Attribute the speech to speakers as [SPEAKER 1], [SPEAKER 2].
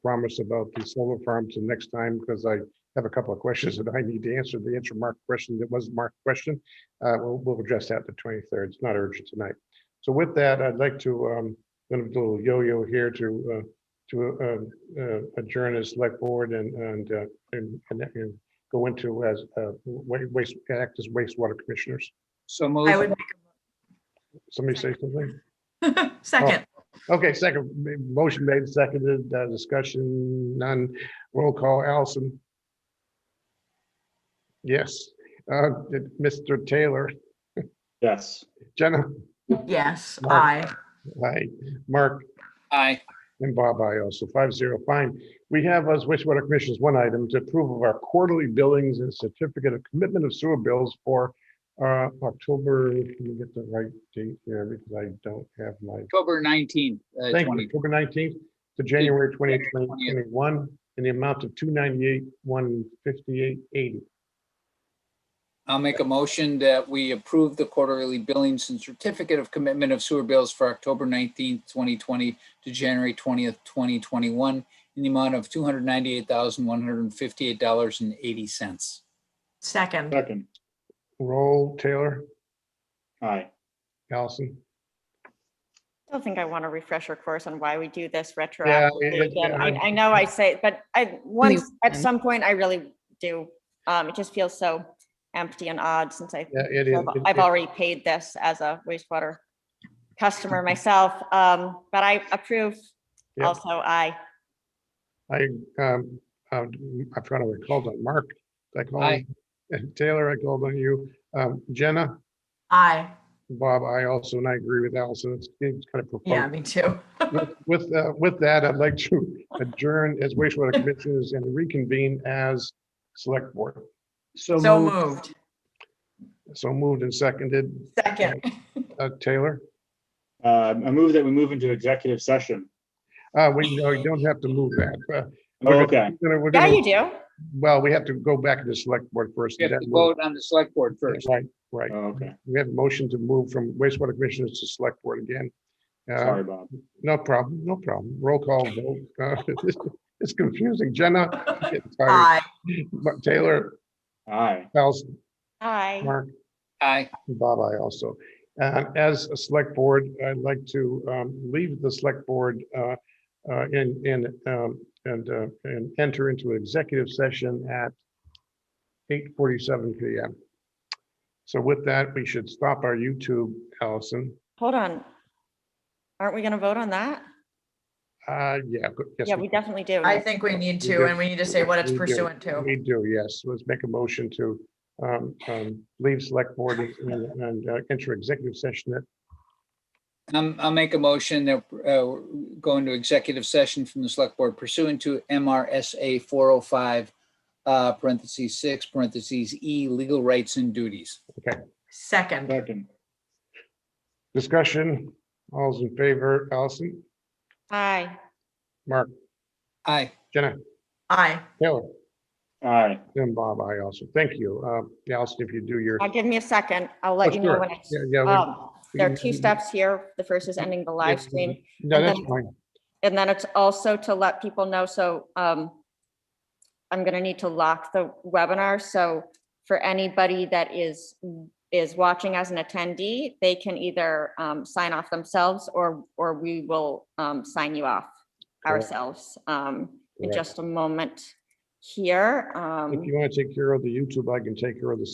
[SPEAKER 1] promise about the solar farms the next time because I have a couple of questions that I need to answer. The answer mark question that wasn't marked question. Uh, we'll, we'll address that the twenty-third. It's not urgent tonight. So with that, I'd like to, um, gonna do a little yo-yo here to, uh, to, uh, uh, adjourn as select board and, and, uh, and, and- and go into as, uh, wa- waste, act as wastewater commissioners.
[SPEAKER 2] So
[SPEAKER 3] I
[SPEAKER 2] moved.
[SPEAKER 3] would
[SPEAKER 1] Somebody say something?
[SPEAKER 3] make a second.
[SPEAKER 1] Okay, second, ma- motion made, seconded, uh, discussion, none, roll call, Allison. Yes, uh, did Mr. Taylor,
[SPEAKER 4] Yes.
[SPEAKER 1] Jenna,
[SPEAKER 3] Oh. Yes,
[SPEAKER 1] Mark.
[SPEAKER 3] I.
[SPEAKER 1] hi, Mark,
[SPEAKER 2] Aye.
[SPEAKER 1] and Bob, I also, five zero, fine. We have as wastewater commissioners, one item to approve of our quarterly billings and certificate of commitment of sewer bills for uh, October, let me get the right date here, because I don't have my
[SPEAKER 2] October 19th, uh,
[SPEAKER 1] Thank you,
[SPEAKER 2] 20.
[SPEAKER 1] October nineteenth to January twentieth,
[SPEAKER 2] January 20th.
[SPEAKER 1] twenty twenty-one, in the amount of two ninety-eight, one fifty-eight, eighty.
[SPEAKER 2] I'll make a motion that we approve the quarterly billings and certificate of commitment of sewer bills for October 19th, 2020 to January 20th, 2021 in the amount of $298,158.80.
[SPEAKER 3] Second,
[SPEAKER 4] Second.
[SPEAKER 1] Roll, Taylor,
[SPEAKER 4] Aye.
[SPEAKER 1] Allison.
[SPEAKER 5] Don't think I want to refresh our course on why we do this
[SPEAKER 1] Yeah,
[SPEAKER 5] retroactively.
[SPEAKER 1] it-
[SPEAKER 5] again. I,
[SPEAKER 1] yeah,
[SPEAKER 5] I know I say, it, but I, once, at some point, I really do. Um, it just feels so empty and odd since I,
[SPEAKER 1] yeah, it is.
[SPEAKER 5] I've I've already paid this as a wastewater customer myself. Um, but I approve
[SPEAKER 1] Yeah.
[SPEAKER 5] also, I,
[SPEAKER 1] I, um, uh, I forgot what I called on Mark. I called
[SPEAKER 2] Aye.
[SPEAKER 1] on- Taylor, I called on you. Um, Jenna,
[SPEAKER 3] I.
[SPEAKER 1] Bob, I also, and I agree with Allison. It's, it's kind of
[SPEAKER 3] Yeah,
[SPEAKER 1] profound.
[SPEAKER 3] me too.
[SPEAKER 1] With- With, uh, with that, I'd like to adjourn as wastewater commissioners and reconvene as select board.
[SPEAKER 3] So moved.
[SPEAKER 1] So moved and seconded.
[SPEAKER 3] Second.
[SPEAKER 1] Uh, Taylor?
[SPEAKER 4] Uh, I move that we move into executive session.
[SPEAKER 1] Uh, we, no, you don't have to move that. Uh,
[SPEAKER 4] Oh,
[SPEAKER 1] we're
[SPEAKER 4] Okay,
[SPEAKER 1] gonna- we're gonna- we're
[SPEAKER 5] yeah,
[SPEAKER 1] gonna-
[SPEAKER 5] you do.
[SPEAKER 1] Well, we have to go back to the select board first.
[SPEAKER 2] We have
[SPEAKER 1] and
[SPEAKER 2] to
[SPEAKER 1] then we'll-
[SPEAKER 2] vote on the select board first.
[SPEAKER 1] Right, right.
[SPEAKER 4] Oh, okay.
[SPEAKER 1] We have a motion to move from wastewater commissioners to select board again. Uh,
[SPEAKER 4] Sorry, Bob.
[SPEAKER 1] No problem, no problem. Roll call. vote. Uh, It's confusing. Jenna? I'm getting tired.
[SPEAKER 3] I.
[SPEAKER 1] But Taylor,
[SPEAKER 4] Aye.
[SPEAKER 1] Allison,
[SPEAKER 5] Aye.
[SPEAKER 1] Mark,
[SPEAKER 2] Aye.
[SPEAKER 1] and Bob, I also. Uh, As a select board, I'd like to um, leave the select board uh, uh, and, and, um, and, uh, and enter into an executive session at 8:47 PM. So with that, we should stop our YouTube, Allison.
[SPEAKER 5] Hold on. Aren't we going to vote on that?
[SPEAKER 1] Uh, Yeah. go- yes,
[SPEAKER 5] Yeah, we definitely do.
[SPEAKER 3] I think we need
[SPEAKER 1] do.
[SPEAKER 3] to, and we need to say what it's
[SPEAKER 1] We do.
[SPEAKER 3] pursuant to.
[SPEAKER 1] We do, yes. Let's make a motion to um, um, leave select board and and, uh, enter executive session at
[SPEAKER 2] Um, I'll make a motion that, uh, go into executive session from the select board pursuant to MRSA four oh five, uh, parentheses six, parentheses E, legal rights and duties.
[SPEAKER 3] Second,
[SPEAKER 4] Second.
[SPEAKER 1] discussion. All's in favor, Allison,
[SPEAKER 5] Aye.
[SPEAKER 1] Mark,
[SPEAKER 2] Aye.
[SPEAKER 1] Jenna,
[SPEAKER 3] I.
[SPEAKER 1] Taylor,
[SPEAKER 4] Aye.
[SPEAKER 1] and Bob, I also. Thank you. Uh, Allison, if you do your.
[SPEAKER 5] I'll give me a second. I'll let
[SPEAKER 1] Oh,
[SPEAKER 5] you know
[SPEAKER 1] sure.
[SPEAKER 5] when it's.
[SPEAKER 1] Yeah, yeah, we-
[SPEAKER 5] um, There are two
[SPEAKER 1] we-
[SPEAKER 5] steps here. The first is ending the live
[SPEAKER 1] Yeah,
[SPEAKER 5] stream,
[SPEAKER 1] No,
[SPEAKER 5] and
[SPEAKER 1] that's
[SPEAKER 5] then-
[SPEAKER 1] fine.
[SPEAKER 5] and then it's also to let people know, so um, I'm going to need to lock the webinar, so for anybody that is, is watching as an attendee, they can either um, sign off themselves or, or we will um, sign you off
[SPEAKER 1] Correct.
[SPEAKER 5] ourselves um, in
[SPEAKER 1] Correct.
[SPEAKER 5] just a moment here. um,
[SPEAKER 1] If you want to take care of the YouTube, I can take care of the